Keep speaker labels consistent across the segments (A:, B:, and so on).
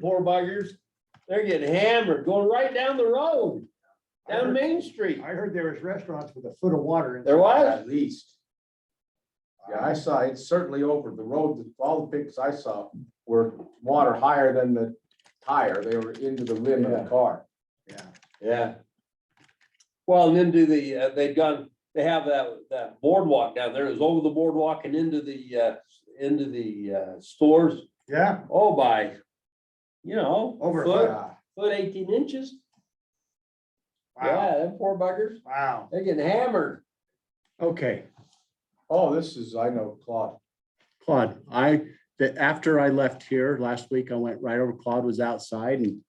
A: poor buggers, they're getting hammered, going right down the road,
B: I
A: down
B: heard-
A: Main Street.
B: I heard there was restaurants with a foot of water. in-
A: There was,
C: At least. Yeah, I saw, it's certainly over the road, all the pictures I saw were water higher than the tire, they were into the rim of
A: Yeah.
C: the car.
B: Yeah.
A: yeah. Well, and then do the, uh, they've gone, they have that, that boardwalk down there, it's over the boardwalk and into the, uh, into the, uh, stores,
B: Yeah,
A: oh, by, you know,
B: Over a
A: foot,
C: Yeah.
A: foot eighteen inches.
B: wow,
A: Yeah, them poor buggers,
B: wow.
A: they're getting hammered.
D: Okay,
C: Oh, this is, I know, Claude,
D: Claude, I, the, after I left here last week, I went right over, Claude was outside and,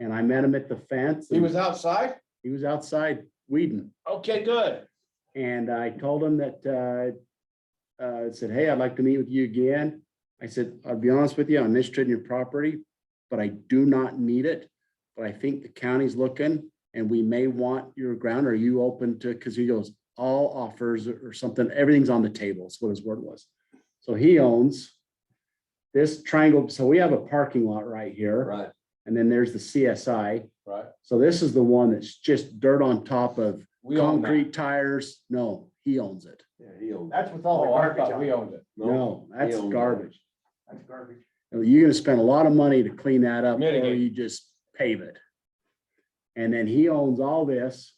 D: and I met him at the fence.
C: he
D: and
C: was outside?
D: He was outside weeding
C: Okay, good.
D: and I told him that, uh, uh, I said, hey, I'd like to meet with you again. I said, I'll be honest with you, I'm interested in your property, but I do not need it. But I think the county's looking and we may want your ground. Are you open to, because he goes, all offers or something, everything's on the table is what his word was. So he owns this triangle. So we have a parking lot right here.
A: Right,
D: And then there's the CSI.
C: Right.
D: So this is the one that's just dirt on top of
C: We own that.
D: concrete tires, no, he owns it.
A: yeah, he'll,
B: That's with all the
C: Oh, I
B: garbage
C: thought
B: on
C: we
B: it.
C: owned it.
D: No, that's
A: owns it.
D: garbage.
B: That's garbage.
D: You're gonna spend a lot of money to clean that up, or
C: Mitigate.
D: you just pave it. And then he owns all this.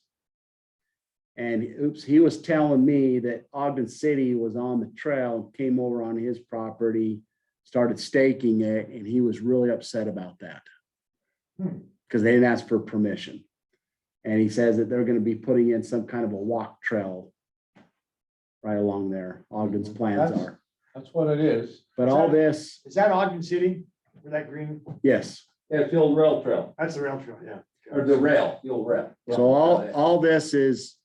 D: And oops, he was telling me that Ogden City was on the trail, came over on his property, started staking it, and he was really upset about that.
B: Hmm.
D: Because they didn't ask for permission. And he says that they're gonna be putting in some kind of a walk trail right along there, Ogden's plans
C: Mm-hmm. That's-
D: are.
C: That's what it is.
D: But all
B: Sounds-
D: this,
B: Is that Ogden City? Where that green,
D: yes.
A: yeah, it's the old rail trail,
B: that's the rail trail, yeah.
A: or the rail, the old rail.
D: So all, all this is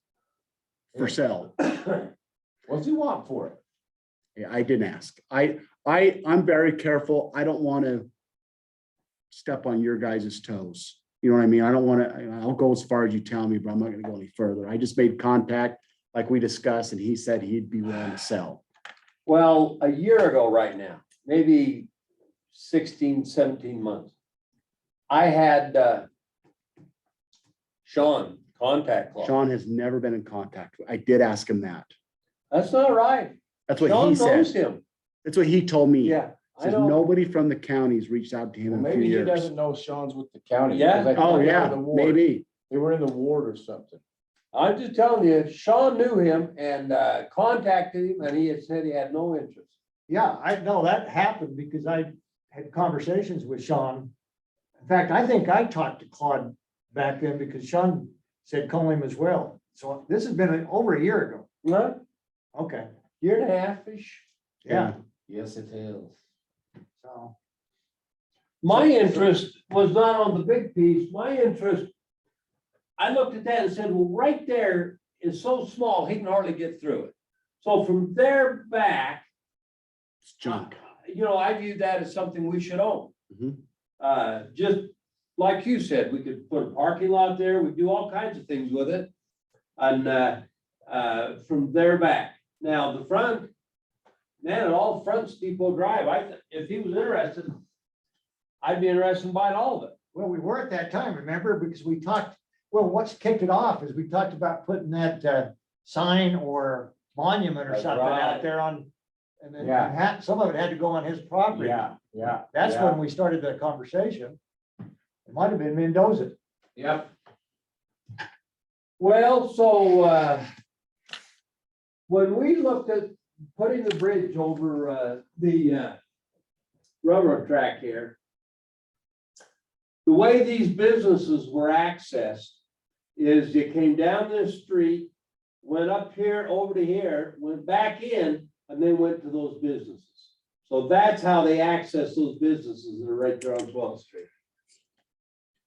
D: for sale.
C: What's he want for it?
D: Yeah, I didn't ask. I, I, I'm very careful. I don't want to step on your guys' toes. You know what I mean? I don't want to, I'll go as far as you tell me, but I'm not going to go any further. I just made contact like we discussed and he said he'd be willing to sell.
A: Well, a year ago right now, maybe 16, 17 months. I had uh, Sean contact Claude.
D: Sean has never been in contact. I did ask him that.
A: That's not right.
D: That's what he
A: Sean knows
D: said.
A: him.
D: That's what he told me.
A: Yeah. I
D: Says
A: know.
D: nobody from the county's reached out to him
C: Well,
D: in a few
C: Maybe he
D: years.
C: doesn't know Sean's with the county.
A: Yeah.
C: 'cause I thought
D: Oh,
C: they were in
D: yeah,
C: the ward.
D: maybe.
C: They were in the ward or something.
A: I'm just telling you, Sean knew him and uh, contacted him and he had said he had no interest.
B: Yeah, I know that happened because I had conversations with Sean. In fact, I think I talked to Claude back then because Sean said call him as well. So this has been over a year ago.
A: No,
B: Okay,
A: year and a half-ish.
B: yeah,
C: Yes, it is.
B: so,
A: My interest was not on the big piece, my interest, I looked at that and said, well, right there is so small, he can hardly get through it. So from there back,
D: It's junk.
A: you know, I view that as something we should own.
D: Mhm.
A: Uh, just like you said, we could put a parking lot there, we do all kinds of things with it. And, uh, uh, from there back, now the front, man, it all fronts Depot Drive, I, th- if he was interested, I'd be interested in buying all of it.
B: well, we were at that time, remember? Because we talked, well, what's kicked it off is we talked about putting that uh sign or monument or
A: That's
B: something out
A: right.
B: there on. And then
C: Yeah.
B: ha- some of it had to go on his property.
C: Yeah, yeah.
B: That's
C: yeah.
B: when we started the conversation. It might have been Mendoza.
C: Yep.
A: Well, so, uh, when we looked at putting the bridge over, uh, the, uh, railroad track here, the way these businesses were accessed is you came down this street, went up here, over to here, went back in, and then went to those businesses. So that's how they access those businesses that are right there on twelfth street.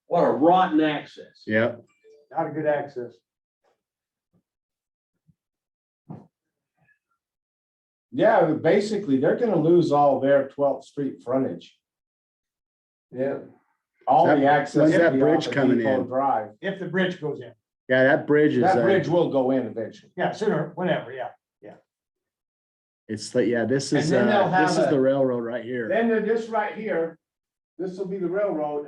A: What a rotten access.
D: Yep.
B: not a good access.
C: Yeah, but basically, they're gonna lose all their twelfth street frontage,
A: Yeah.
C: all
D: That-
C: the access.
D: when's
C: will
D: that
C: be
D: bridge
C: off of
D: coming
C: Depot
D: in?
C: Drive.
B: If the bridge goes in,
D: Yeah, that bridge is,
C: That
D: uh,
C: bridge will go in eventually.
B: yeah, sooner, whenever, yeah.
D: it's like, yeah, this
C: And
D: is,
C: then they'll
D: uh, this
C: have
D: is
C: a-
D: the railroad right here.
C: Then they're just right here, this will be the railroad